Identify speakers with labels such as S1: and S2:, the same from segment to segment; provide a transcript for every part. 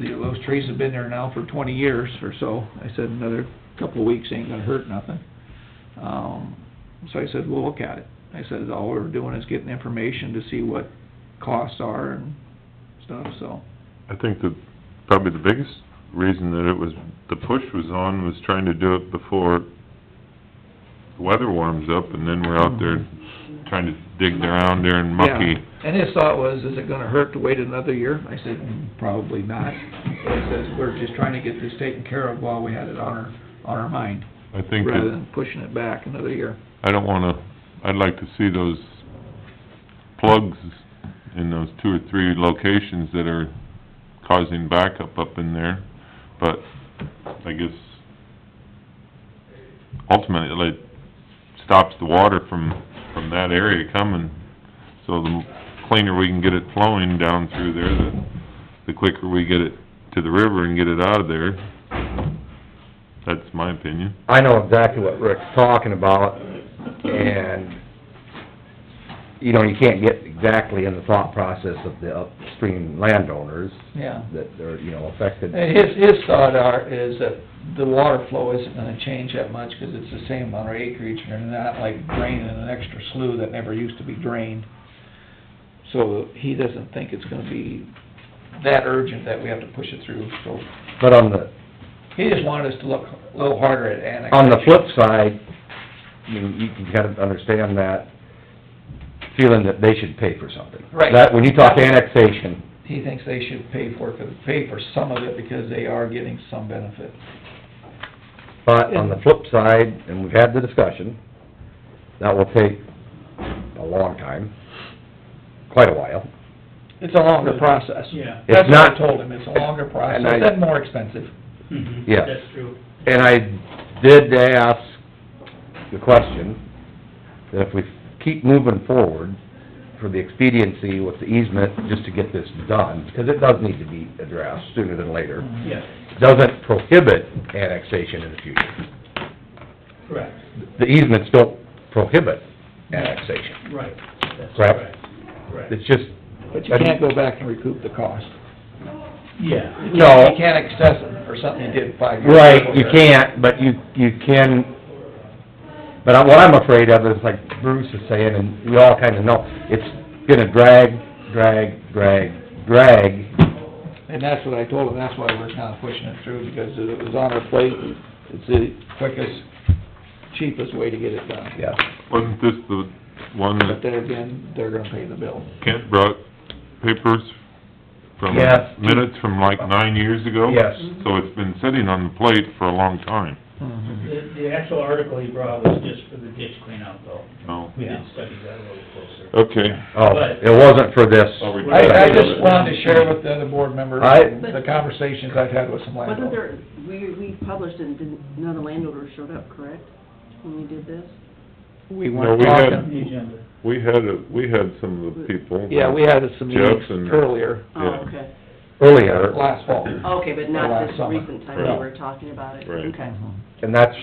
S1: the- those trees have been there now for twenty years or so. I said, another couple of weeks ain't gonna hurt nothing. Um, so I said, we'll look at it. I said, all we're doing is getting information to see what costs are and stuff, so.
S2: I think that probably the biggest reason that it was, the push was on was trying to do it before the weather warms up and then we're out there trying to dig around there and mucky.
S1: Yeah. And his thought was, is it gonna hurt to wait another year? I said, probably not. He says, we're just trying to get this taken care of while we had it on our, on our mind,
S2: I think
S1: rather
S2: that,
S1: than pushing it back another year.
S2: I don't wanna, I'd like to see those plugs in those two or three locations that are causing backup up in there, but I guess ultimately it stops the water from, from that area coming. So the cleaner we can get it flowing down through there, the, the quicker we get it to the river and get it out of there. That's my opinion.
S3: I know exactly what Rick's talking about, and, you know, you can't get exactly in the thought process of the upstream landowners
S1: Yeah.
S3: that are, you know, affected.
S1: And his, his thought are, is that the water flow isn't gonna change that much, 'cause it's the same amount of acreage, and they're not like draining an extra slough that never used to be drained. So he doesn't think it's gonna be that urgent that we have to push it through, so
S3: But on the,
S1: he just wanted us to look a little harder at annexation.
S3: on the flip side, you, you can kind of understand that feeling that they should pay for something.
S1: Right.
S3: That, when you talk annexation,
S1: He thinks they should pay for, it, pay for some of it, because they are getting some benefit.
S3: but on the flip side, and we've had the discussion, that will take a long time, quite a while.
S1: It's a longer process.
S4: Yeah.
S3: It's
S1: That's what I
S3: not-
S1: told him, it's a longer process,
S3: And I-
S1: and more expensive.
S4: Mhm.
S3: Yeah.
S4: That's true.
S3: And I did ask the question, that if we keep moving forward for the expediency with the easement, just to get this done, because it does need to be addressed sooner than later,
S4: Yeah,
S3: doesn't prohibit annexation in the future.
S4: correct,
S3: The easements don't prohibit annexation.
S4: right. That's
S3: Correct.
S4: Correct,
S3: It's just,
S1: But you can't go back and recoup the cost.
S4: yeah.
S3: no,
S1: You can't access it for something you did five years ago.
S3: right, you can't, but you, you can, but I- what I'm afraid of is like Bruce is saying, and we all kinda know, it's gonna drag, drag, drag, drag,
S1: And that's what I told him, that's why we're kinda pushing it through, because it was on our plate, it's the quickest, cheapest way to get it done.
S3: yeah.
S2: Wasn't this the one that
S1: But then again, they're gonna pay the bill.
S2: Kent brought papers from,
S3: Yes.
S2: minutes from like nine years ago?
S3: Yes.
S2: So it's been sitting on the plate for a long time,
S1: Mm-hmm.
S4: The, the actual article he brought was just for the ditch cleanout though.
S2: so.
S4: We did
S1: Yeah.
S4: study that a little closer.
S2: Okay.
S3: Oh, it wasn't for this.
S2: I'll read
S1: I, I just wanted to share with the other board members
S3: I-
S1: the conversations I've had with some
S5: Wasn't
S1: landowners.
S5: there, we, we published and didn't, none of the landowners showed up, correct, when we did this?
S1: We
S2: No,
S1: weren't
S2: we had-
S1: talking,
S4: The agenda.
S2: We had, a- we had some of the people.
S1: yeah, we had some meetings
S2: Jeff and-
S1: earlier,
S2: Yeah.
S5: Oh, okay,
S3: Earlier,
S1: last fall.
S5: okay,
S1: Last
S5: but not this
S1: summer. Mm-hmm.
S5: recent time
S2: Right.
S5: we were talking about it,
S2: Right.
S5: okay.
S3: and that's,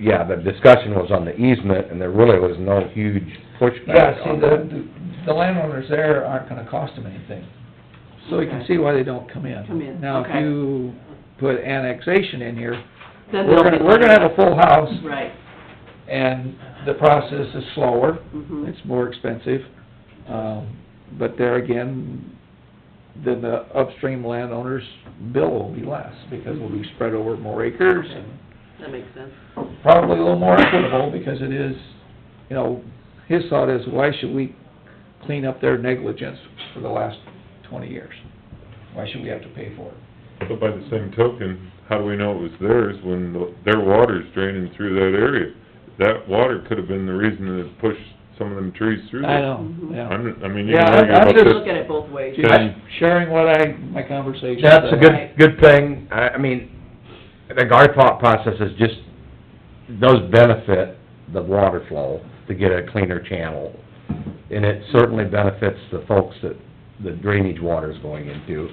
S3: yeah, the discussion was on the easement, and there really was no huge
S1: Yeah,
S3: pushback
S1: see,
S3: on that.
S1: the, the landowners there aren't gonna cost them anything. So you can
S5: Okay.
S1: see why they don't come in.
S5: Come in,
S1: Now, if
S5: okay.
S1: you put annexation in here,
S5: Then
S1: we're
S5: they'll
S1: gonna,
S5: be-
S1: we're gonna have a full house,
S5: Right,
S1: and the process is slower,
S5: mhm,
S1: it's more expensive. Um, but there again, then the upstream landowners' bill will be less, because we'll be spread over more acres, and
S5: that makes sense.
S1: probably a little more equitable, because it is, you know, his thought is, why should we clean up their negligence for the last twenty years? Why should we have to pay for it?
S2: But by the same token, how do we know it was theirs when the- their water's draining through that area? That water could have been the reason that it pushed some of them trees through
S1: I
S2: there.
S1: know,
S5: Mhm.
S1: yeah.
S2: I'm, I mean, you
S1: Yeah,
S2: can
S1: I-
S2: argue
S1: I'm
S2: about
S1: just-
S2: this.
S5: Look at it both ways.
S2: Yeah.
S1: Just sharing what I, my conversations.
S3: That's a
S5: Right.
S3: good, good thing, I, I mean, I think our thought process is just, those benefit the water flow to get a cleaner channel. And it certainly benefits the folks that the drainage water's going into,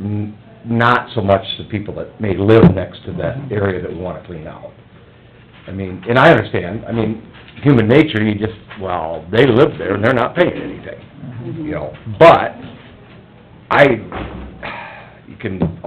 S3: N- not so much the people that may live next to that area that we wanna clean out. I mean, and I understand, I mean, human nature, you just, well, they live there
S5: Mm-hmm.
S3: and they're not paying anything you know, but I, you can